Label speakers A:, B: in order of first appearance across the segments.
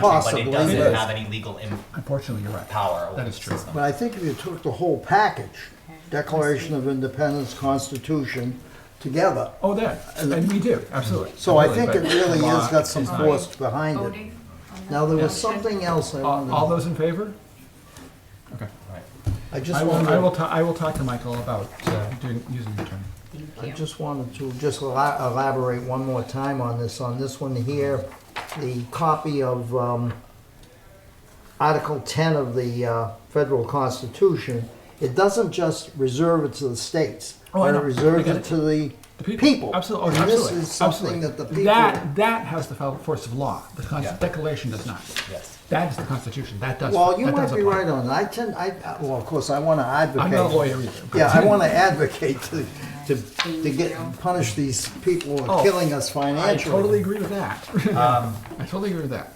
A: country, but it
B: Possibly,
A: doesn't
B: but-
A: have any legal im-
C: Unfortunately, you're right.
A: power. over
C: That is
A: the
C: true.
A: system.
B: But I think if you took the whole package, Declaration of Independence, Constitution, together,
C: Oh, that, and we do, absolutely.
B: so I think
C: Absolutely,
B: it
C: but uh,
B: really
C: the
B: has
C: law
B: got some
C: is not.
B: force behind it.
D: voting on that?
B: Now, there was something else I
C: uh, All all
B: wanted,
C: those in favor? Okay.
A: Right.
B: I
C: I
B: just
C: will, I will,
B: wanted,
C: ta- I will talk to Michael about uh, doing, using the attorney.
B: I just wanted to just ela- elaborate one more time on this, on this one here, the copy of, um, Article 10 of the uh, federal constitution, it doesn't just reserve it to the states.
C: Oh, I
B: but
C: know.
B: It reserves
C: I get
B: it
C: it.
B: to the
C: The
B: people.
C: Absolutely, oh,
B: And this
C: absolutely.
B: is something
C: absolutely.
B: that the people,
C: That, that has the fel- force of law. The cons-
A: Yeah.
C: declaration does not.
A: Yes.
C: That is the Constitution. That does.
B: well, you
C: that
B: might
C: does
B: be
C: apply.
B: right on, that. I tend, I, well, of course, I want to advocate.
C: I'm not a lawyer either. but-
B: Yeah, I want to advocate to, to, to get, punish these people who
C: Oh,
B: are killing us
C: I
B: financially.
C: totally agree with that.
A: Um,
C: I totally agree with that.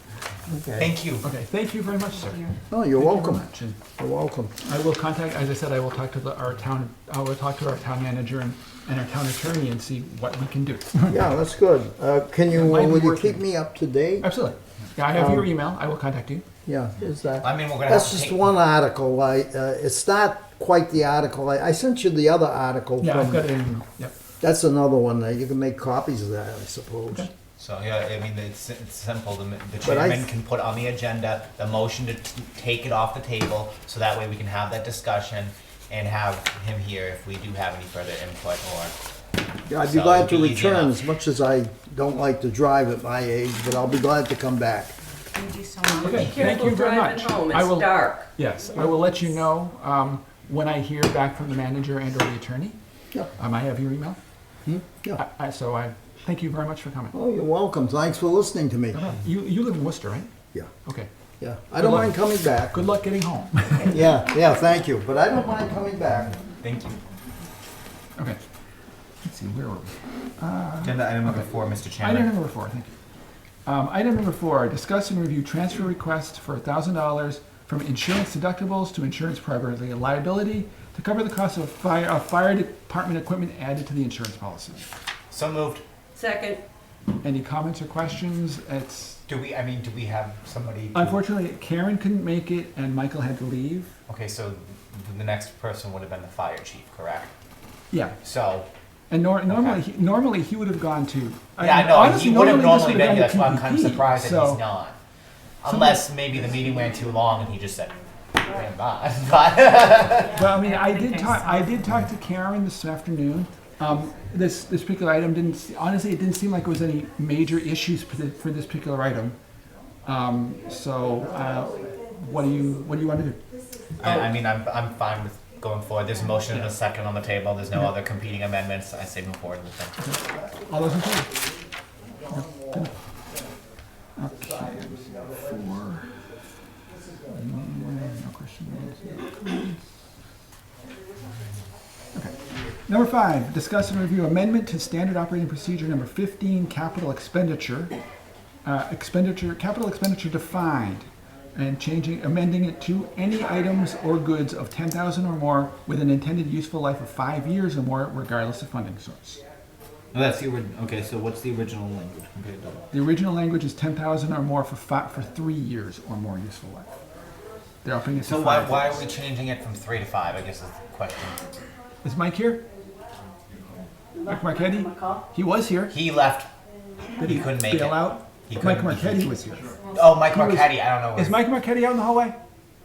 B: Okay.
A: Thank you.
C: Okay, thank you very much, sir. Thank you
B: No, you're
C: very
B: welcome,
C: much, and
B: you're welcome.
C: I will contact, as I said, I will talk to the, our town, I will talk to our town manager and, and our town attorney and see what we can do.
B: Yeah, that's good. Uh, Can you,
C: It might be
B: will you
C: working.
B: keep me up to date?
C: Absolutely. Yeah, I have your email. I will contact you.
B: Yeah, is that?
A: I mean, we're gonna
B: That's
A: have to
B: just
A: take-
B: one article. I, uh, it's not quite the article. I, I sent you the other article.
C: Yeah, I've
B: from-
C: got it in email. Yep.
B: That's another one that you can make copies of that, I suppose.
A: So, yeah, I mean, it's, it's simple. The, the
B: But I-
A: chairman can put on the agenda the motion to t- take it off the table, so that way we can have that discussion and have him here if we do have any further input or.
B: Yeah, I'd be
A: So
B: glad to
A: it'd be easy
B: return,
A: enough.
B: as much as I don't like to drive at my age, but I'll be glad to come back.
D: Thank you so much.
C: Okay, thank
E: Careful
C: you very
E: driving
C: much.
E: home,
C: I will,
E: it's dark.
C: yes, I will let you know, um, when I hear back from the manager and or the attorney.
B: Yeah.
C: Um, I have your email.
B: Yeah.
C: I- I, so I, thank you very much for coming.
B: Oh, you're welcome. Thanks for listening to me.
C: You, you live in Worcester, right?
B: Yeah,
C: Okay.
B: yeah. I don't
C: luck.
B: mind coming back.
C: Good luck getting home.
B: Yeah, yeah, thank you. But I don't mind coming back.
A: Thank you.
C: Okay. Let's see, where were we?
A: Agenda item number four, Mr.
C: Item
A: Chairman.
C: number four, thank you. Um, item number four, discuss and review transfer requests for thousand dollars from insurance deductibles to insurance privately liability to cover the cost of fire, of fire department equipment added to the insurance policy.
A: So moved.
E: Second,
C: Any comments or questions? It's,
A: Do we, I mean, do we have somebody? who-
C: unfortunately, Karen couldn't make it and Michael had to leave.
A: Okay, so the next person would have been the fire chief, correct?
C: Yeah,
A: So,
C: and nor, normally,
A: Okay.
C: he- normally he would have gone to.
A: yeah, I know,
C: honestly,
A: he would have
C: this
A: normally been,
C: gone
A: here,
C: to
A: that's why I'm kind of
C: PPP,
A: surprised that
C: so-
A: he's not. Unless maybe the meeting ran too long and he just said, "I'm not." But-
C: Well, I mean, I did talk, I did talk to Karen this afternoon. Um, this, this particular item didn't, se- honestly, it didn't seem like it was any major issues for, the, for this particular item. Um, so, uh, what do you, what do you want to do?
A: I, I mean, I'm, I'm fine with going forward, there's a motion and a second on the table, there's no other competing amendments, I say move forward with them.
C: All those in favor? Okay, four. No questions, no comments. Okay. Number five, discuss and review amendment to standard operating procedure number fifteen, capital expenditure. Uh, expenditure, capital expenditure defined, and changing, amending it to any items or goods of ten thousand or more with an intended useful life of five years or more regardless of funding source.
A: That's the, okay, so what's the original language compared to?
C: The original language is ten thousand or more for fi- for three years or more useful life. They're upping it to
A: So why,
C: five.
A: why
C: years.
A: are we changing it from three to five, I guess is the question.
C: Is Mike here? Mike Marquetti? He was here.
A: He left, he couldn't make it.
C: Bail out.
A: He
C: Mike
A: couldn't- he
C: Marquetti
A: couldn't-
C: was here.
A: Oh, Mike
C: was-
A: Marquetti, I don't know
C: Is
A: where,
C: Mike Marquetti out in the hallway?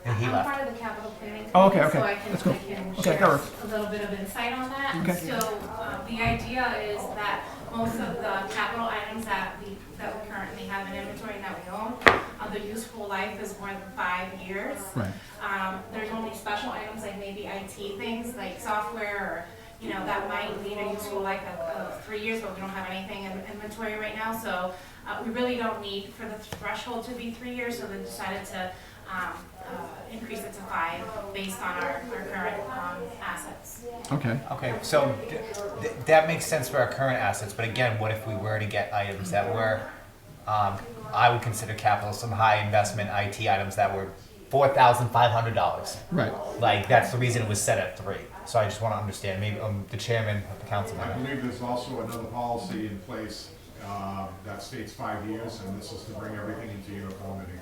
A: he
F: I'm
A: left.
F: part of the capital planning.
C: Oh, okay,
F: committee,
C: okay. That's
F: So
C: cool.
F: I can, I
C: Okay,
F: can
C: that
F: share
C: works.
F: a little bit of insight on that.
C: Okay.
F: So, uh, the idea is that most of the capital items that we, that we currently have in inventory and that we own, uh, the useful life is more than five years.
C: Right.
F: Um, there's only special items like maybe IT things, like software, or, you know, that might lead a useful life of, of three years, but we don't have anything in inventory right now, so, uh, we really don't need for the threshold to be three years, so they decided to, um, uh, increase it to five based on our, our current, um, assets.
C: Okay.
A: Okay, so th- th- that makes sense for our current assets, but again, what if we were to get items that were, um, I would consider capital, some high investment IT items that were four thousand five hundred dollars?
C: Right.
A: Like, that's the reason it was set at three. So I just wanna understand, maybe, um, the chairman of the council,
G: I believe there's also another policy in place uh,
E: uh, that states five years, and this is to bring everything into uniformity.